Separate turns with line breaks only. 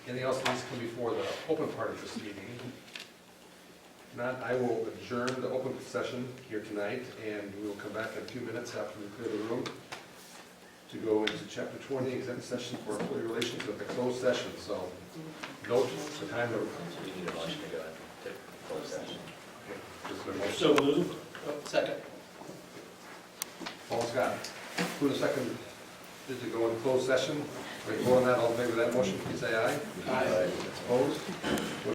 Anything else that needs to come before the open part of this meeting? If Not, I will adjourn the open session here tonight, and we will come back in a few minutes after we clear the room to go into chapter twenty, exempt session for employee relations with a closed session, so note the time of,
So we need a motion to go into closed session.
okay, just a motion.
So moved. Second.
Paul Scott, who the second, did to go in closed session? Are you voting that, all in favor of that motion, please say aye.
Aye.
Opposed?